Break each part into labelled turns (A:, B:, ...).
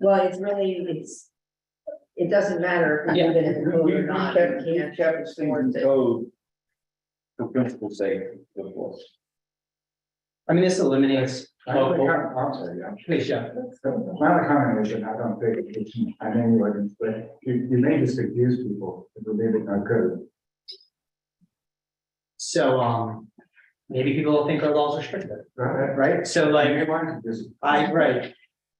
A: Well, it's really, it's, it doesn't matter if
B: Yeah.
A: you live in the
C: We,
A: code
C: we
A: or not.
C: kept,
A: you
C: we
A: can't
C: kept things in
A: enforce it.
C: code. For principle's sake, of course.
B: I mean, this eliminates.
D: I'm sorry, I'm
B: Please, Jeff.
D: Not a combination, I don't think it's an anyone, but you, you may just confuse people if we leave it in our code.
B: So, um, maybe people will think our laws are stricter,
D: Right?
B: right? So like,
D: Everyone just,
B: I, right.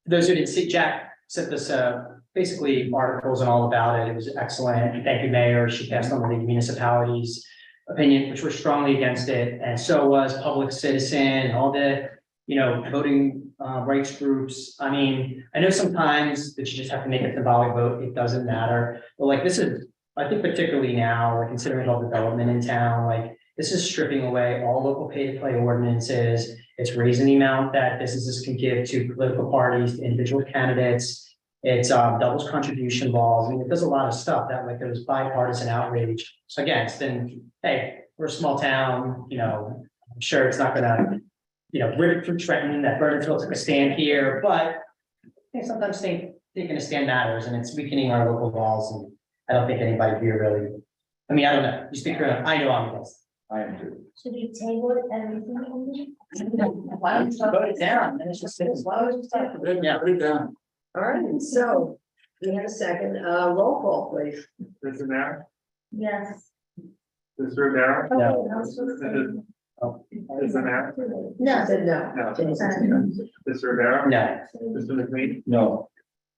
B: Those who didn't see, Jack sent us, uh, basically articles and all about it. It was excellent. Thank you, Mayor. She passed on the municipalities' opinion, which were strongly against it. And so was Public Citizen and all the, you know, voting, uh, rights groups. I mean, I know sometimes that you just have to make a symbolic vote. It doesn't matter. But like, this is, I think particularly now, like, considering all the development in town, like, this is stripping away all local pay-to-play ordinances. It's raising the amount that businesses can give to political parties, to individual candidates. It's um, doubles contribution laws. I mean, it does a lot of stuff that like there's bipartisan outrage against. And hey, we're a small town, you know, I'm sure it's not gonna, you know, rip it from Trenton, that Burnsville took a stand here, but I think sometimes think, taking a stand matters and it's weakening our local laws. And I don't think anybody here really, I mean, I don't know. You speak for, I know I'm against.
C: I am too.
E: Should we table it everything? only?
A: Why don't you vote it down? Then it's just, why would you stop?
B: Yeah.
D: put it down.
A: All right, so we have a second, uh, roll call, please.
F: Mr. Mayor,
E: Yes.
F: Mr. Rivera,
B: Yeah.
E: Okay, I was supposed to-
F: Mr. Mayor,
A: I
E: No.
A: said no.
F: No.
A: Jason.
F: Mr. Rivera,
B: No,
F: Mr. McQueen,
C: No,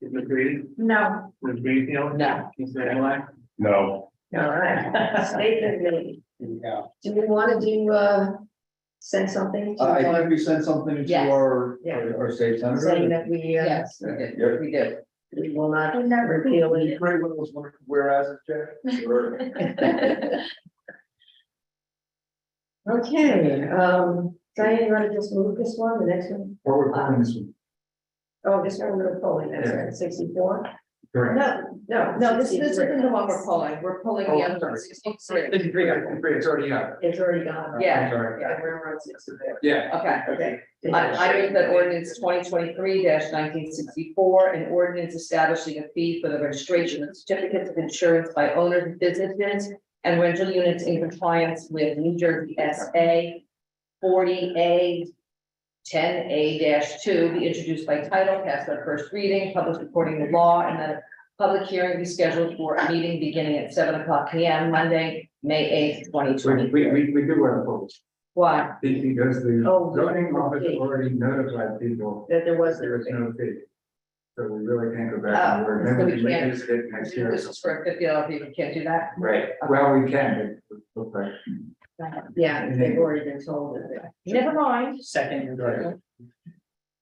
F: Ms. Grady,
E: No.
F: Ms. Greenfield.
A: No.
F: Mr. Anlai,
C: no,
A: All right, statement made.
B: there you go.
A: Do we want to do, uh, send something to
C: I I
A: our,
C: think we sent something to
G: Yes.
C: our,
A: Yeah.
C: our our state
A: saying
C: senator.
A: that we, uh,
G: Yes, we did,
C: Yep.
G: we did.
A: we will not
E: I never
A: repeal
C: Are you
A: it?
C: great with those wonder- whereas, Jack? Or-
A: Okay, um, Diane, you want to just move this one, the next one?
D: Or we're putting this one.
A: Oh, this one we're pulling, that's right, sixty-four?
D: Correct.
A: No, no,
G: No, this, this isn't the one we're
A: pulling.
G: pulling, we're pulling
D: Oh,
G: the
D: I'm
G: other one,
D: sorry.
G: 63.
D: It's already up. It's already up.
A: It's already gone.
G: Yeah,
D: Sorry.
A: Yeah, we're on 64.
D: Yeah.
G: okay.
A: Okay.
G: I, I move that ordinance twenty twenty-three nineteen sixty-four, an ordinance establishing a fee for the registration of certificates of insurance by owners of businesses and rental units in compliance with New Jersey S A forty A ten A two, be introduced by title, passed on first reading, published according to law, and that a public hearing be scheduled for a meeting beginning at seven o'clock P M, Monday, May eighth, twenty
D: We, we,
G: twenty-three.
D: we, we do want to vote.
G: Why?
D: Be- Because the
A: Oh,
D: zoning office
A: okay.
D: already notified people
A: That there was,
D: there was no fee. So we really can't go back.
G: Oh,
D: and we're
G: so we
D: going to
G: can't-
D: revisit it next year.
G: This is for a fifty dollar fee, we can't do that?
D: Right, well, we can, but- but, but
A: yeah, they've already been told of that.
G: Never mind.
B: Second and third.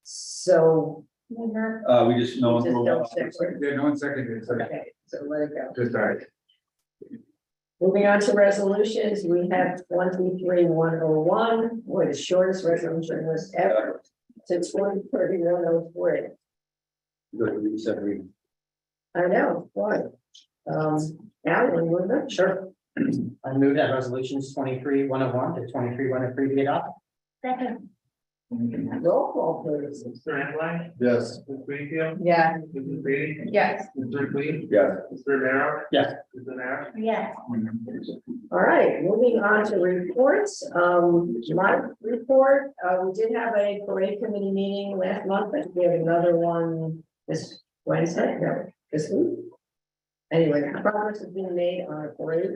A: So.
C: Uh, we just know.
A: Just don't stick with it.
D: Yeah, no one seconded, so
A: Okay, so let it go.
D: just uh, all right.
A: Moving on to resolutions, we have twenty-three, one oh one, boy, the shortest resolution list ever. Since one thirty, one oh three.
C: Good, we said we-
A: I know, boy. Um, Alan, would that?
B: Sure. I move that resolutions twenty-three one oh one to twenty-three one oh three be adopted.
E: Second,
A: Roll call, please.
F: Mr. Anlai,
C: Yes,
F: Ms. Greenfield,
G: Yeah,
F: Ms. Grady,
G: yes.
F: Ms. McQueen,
C: yes.
F: Mr. Rivera.
B: Yes.
F: Mr. Mayor,
E: yes.
A: All right, moving on to reports, um, my report, uh, we did have a parade committee meeting last month, but we have another one this Wednesday, no, this week. Anyway, progress has been made on a parade.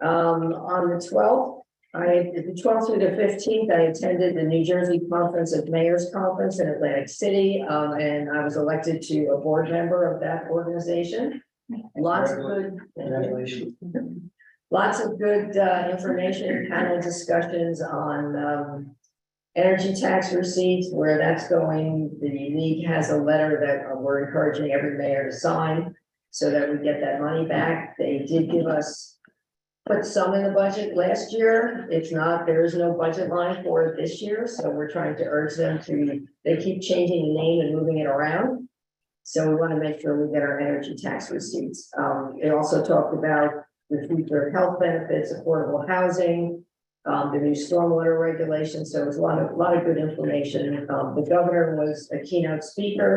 A: Um, on the twelfth, I, the twelfth through the fifteenth, I attended the New Jersey Conference of Mayors Conference in Atlantic City, um, and I was elected to a board member of that organization. Lots of good.
B: Congratulations.
A: Lots of good uh, information, panel discussions on um, energy tax receipts, where that's going. The league has a letter that we're encouraging every mayor to sign so that we get that money back. They did give us, put some in the budget last year. It's not, there is no budget line for it this year, so we're trying to urge them to, they keep changing the name and moving it around. So we want to make sure we get our energy tax receipts. Um, They also talked about the future health benefits, affordable housing, um, the new stormwater regulations, so it was a lot of, lot of good information. Um, the governor was a keynote speaker.